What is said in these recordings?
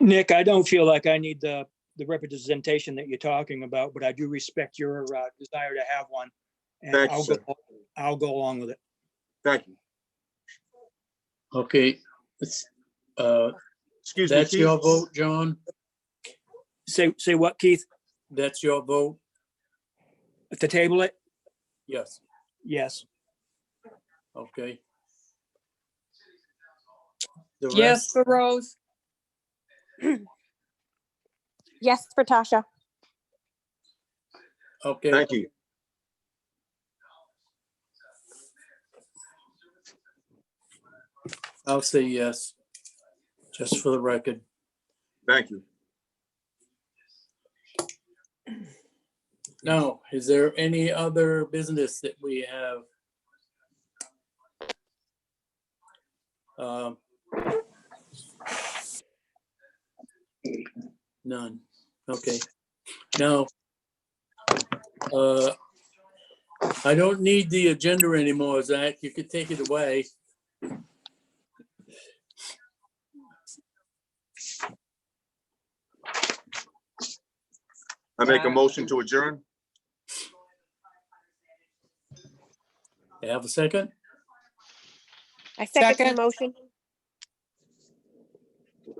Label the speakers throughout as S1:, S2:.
S1: Nick, I don't feel like I need the, the representation that you're talking about, but I do respect your uh, desire to have one. And
S2: Thank you,
S1: I'll
S2: sir.
S1: go, I'll go along with it.
S2: Thank you.
S3: Okay, it's, uh,
S2: Excuse me.
S3: that's
S2: Keith.
S3: your vote, John?
S1: Say, say what, Keith?
S3: That's your vote?
S1: To table it?
S3: Yes,
S1: Yes.
S3: okay. The
S4: Yes
S3: rest,
S4: for Rose,
S5: Yes, for Tasha.
S3: okay,
S2: Thank you.
S3: I'll say yes, just for the record.
S2: Thank you.
S3: Now, is there any other business that we have? Um, None, okay, now. uh, I don't need the agenda anymore, Zach, you could take it away.
S2: I make a
S4: Uh,
S2: motion to adjourn.
S3: Have a second?
S5: I second
S4: Second.
S5: the motion.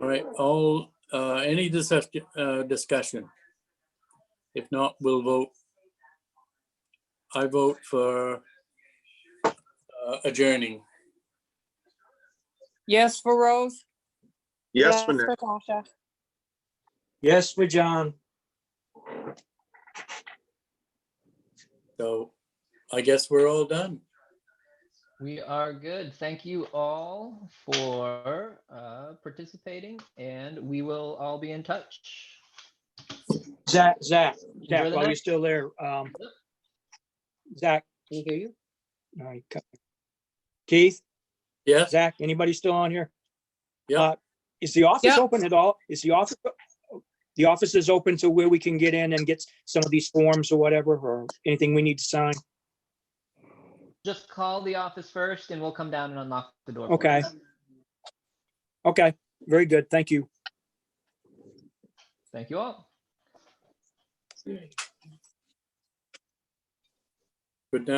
S3: All right, all, uh, any discussion, uh, discussion? If not, we'll vote. I vote for uh, adjourning.
S4: yes for Rose,
S2: Yes, for Nick.
S5: Tasha.
S1: Yes, for John.
S3: So I guess we're all done.
S6: We are good. Thank you all for uh, participating, and we will all be in touch.
S1: Zach, Zach,
S6: Enjoy
S1: Zach,
S6: the
S1: while you're
S6: night.
S1: still there, um, Zach,
S6: Can you hear you?
S1: all right, cut. Keith,
S3: Yes,
S1: Zach, anybody still on here?
S3: Yeah.
S1: Uh, Is the office
S4: Yeah.
S1: open at all? Is the office, the office is open to where we can get in and get some of these forms or whatever, or anything we need to sign?
S6: Just call the office first, and we'll come down and unlock the door. for you.
S1: Okay. Okay, very good. Thank you.
S6: Thank you all.
S3: good night.